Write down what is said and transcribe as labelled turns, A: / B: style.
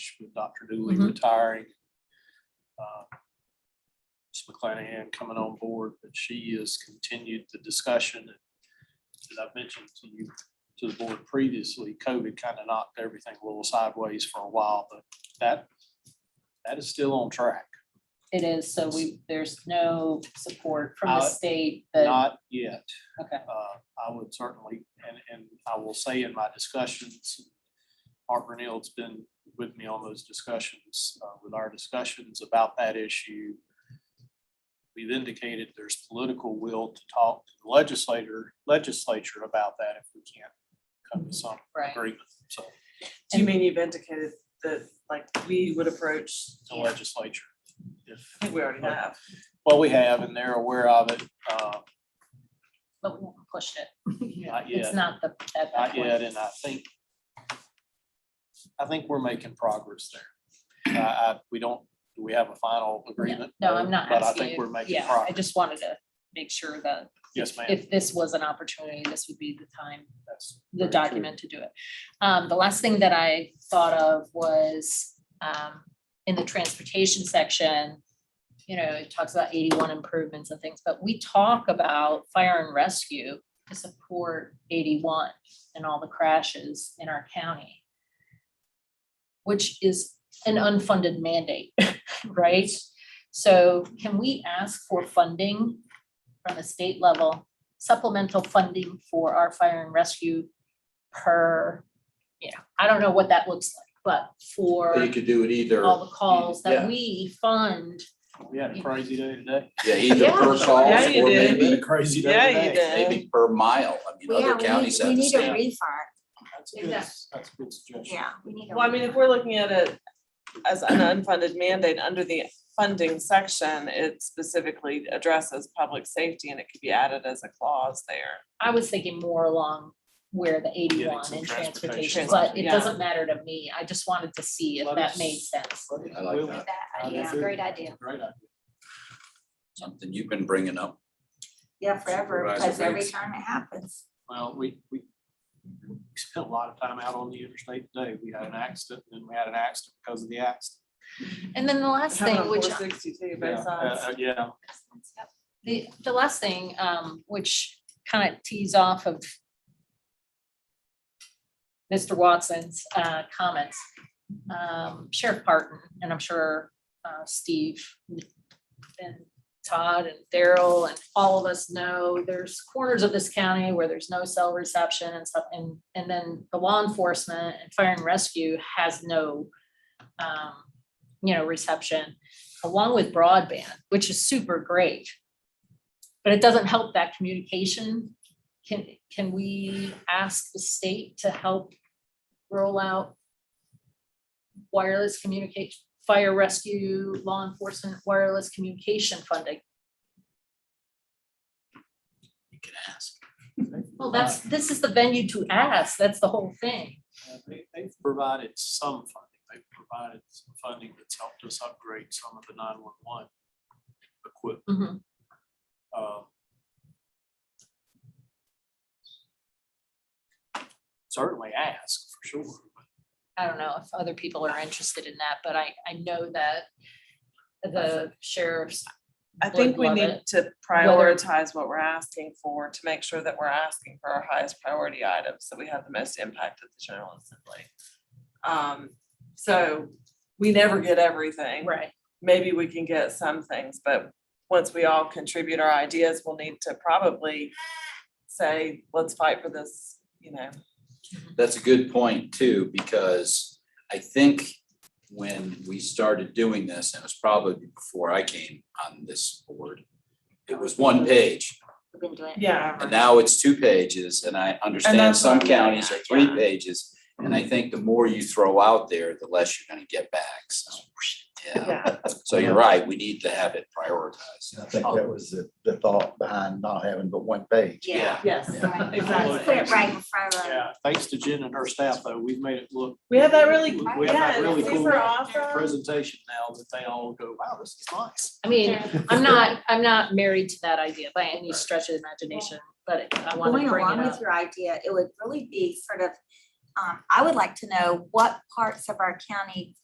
A: March with Dr. Dooley
B: Mhm.
A: retiring. uh, Ms. McClanahan coming on board, but she has continued the discussion that I've mentioned to you, to the board previously. COVID kind of knocked everything a little sideways for a while, but that, that is still on track.
B: It is, so we, there's no support from the
A: Uh,
B: state that,
A: Not yet.
B: okay,
A: uh, I would certainly, and, and I will say in my discussions, Art Brunel's been with me on those discussions, uh, with our discussions about that issue. We've indicated there's political will to talk to the legislator, legislature about that if we can't come to some
B: right.
A: agreement. So
C: Do you mean you've indicated that, like, we would approach,
A: the legislature, if,
C: I think we already have.
A: well, we have and they're aware of it, uh,
B: But we won't push it.
A: not yet.
B: It's not the, at that
A: Not yet,
B: point.
A: and I think, I think we're making progress there. I, I, we don't, do we have a final agreement?
B: No, I'm not
A: But I
B: asking
A: think we're
B: you.
A: making
B: Yeah, I
A: progress.
B: just wanted to make sure that
A: Yes, ma'am.
B: if this was an opportunity, this would be the time
A: That's
B: the
A: very true.
B: document to do it. Um, the last thing that I thought of was, um, in the transportation section, you know, it talks about eighty-one improvements and things, but we talk about fire and rescue to support eighty-one and all the crashes in our county, which is an unfunded mandate, right? So can we ask for funding from the state level, supplemental funding for our fire and rescue per, you know, I don't know what that looks like, but
D: They
B: for
D: could do it either,
B: all the calls
D: Yeah.
B: that we fund.
A: We had a crazy day today.
D: yeah, either per
B: Yeah.
D: call
C: Yeah, you
D: or
C: did.
A: We had
D: maybe,
A: a crazy
C: Yeah,
A: day
C: you
A: today.
C: did.
D: maybe per mile. I mean,
E: Well,
D: other
E: Yeah, we need,
D: counties have
E: we
D: the
E: need a
D: same.
E: refund,
A: That's a good, that's a good suggestion.
E: yeah, we need a.
C: Well, I mean, if we're looking at it as an unfunded mandate under the funding section, it specifically addresses public safety and it could be added as a clause there.
B: I was thinking more along where the
A: Getting
B: eighty-one
A: some
B: and
A: transportation
B: transportation,
C: funds,
B: but it
C: yeah.
B: doesn't matter to me. I just wanted to see if
A: Let
B: that
A: us-
B: made sense.
D: I like
A: We'll-
D: that.
E: refund. That, uh, yeah, great idea.
A: Great idea.
D: Something you've been bringing up.
E: Yeah, forever,
D: Supervisor
E: because every
D: Bates.
E: time it happens.
A: Well, we, we we spent a lot of time out on the interstate today. We had an accident and then we had an accident because of the accident.
B: And then the last thing, which
C: Four sixty-two
A: Yeah,
C: based on.
A: uh, uh, Yeah,
B: The, the last thing, um, which kind of tees off of Mr. Watson's, uh, comments, um, Sheriff Parton, and I'm sure, uh, Steve and Todd and Daryl and all of us know, there's corners of this county where there's no cell reception and stuff, and, and then the law enforcement and fire and rescue has no, um, you know, reception along with broadband, which is super great. But it doesn't help that communication. Can, can we ask the state to help roll out wireless communication, fire rescue, law enforcement, wireless communication funding?
D: You can ask.
B: Well, that's, this is the venue to ask. That's the whole thing.
A: Uh, They, they've provided some funding, they've provided some funding that's helped us upgrade some of the nine-one-one equipment.
B: Mhm.
A: Um, Certainly ask, for sure, but
B: I don't know if other people are interested in that, but I, I know that the sheriff's.
C: I think
B: would
C: we
B: love
C: need
B: it.
C: to prioritize what we're asking for to make sure that we're asking for our highest priority items, that we have the most impact at the General Assembly. Um, so we never get everything.
B: Right.
C: Maybe we can get some things, but once we all contribute our ideas, we'll need to probably say, let's fight for this, you know.
D: That's a good point too, because I think when we started doing this, and it was probably before I came on this board, it was one page.
E: We've been doing it.
C: Yeah.
D: And now it's two pages, and I understand
C: that's
D: some
C: what I'm getting
D: counties are
C: at,
D: three
C: yeah.
D: pages. And I think the more you throw out there, the less you're gonna get back, so, yeah.
C: Yeah,
D: So you're right, we need to have it prioritized.
F: I think that was the, the thought behind not having but one page.
E: Yeah.
C: yes,
E: right.
C: exactly.
E: Put it right in front of them.
A: yeah, thanks to Jen and her staff, though, we've made it look.
C: We have that really-
A: We have
C: yeah,
A: that really
C: these
A: cool
C: are awesome.
A: presentation now that they all go, wow, this is nice.
B: I mean, I'm not, I'm not married to that idea by any stretch of the imagination, but it- I want
E: Going
B: to bring
E: along
B: it
E: with
B: up.
E: your idea, it would really be sort of, um, I would like to know what parts of our county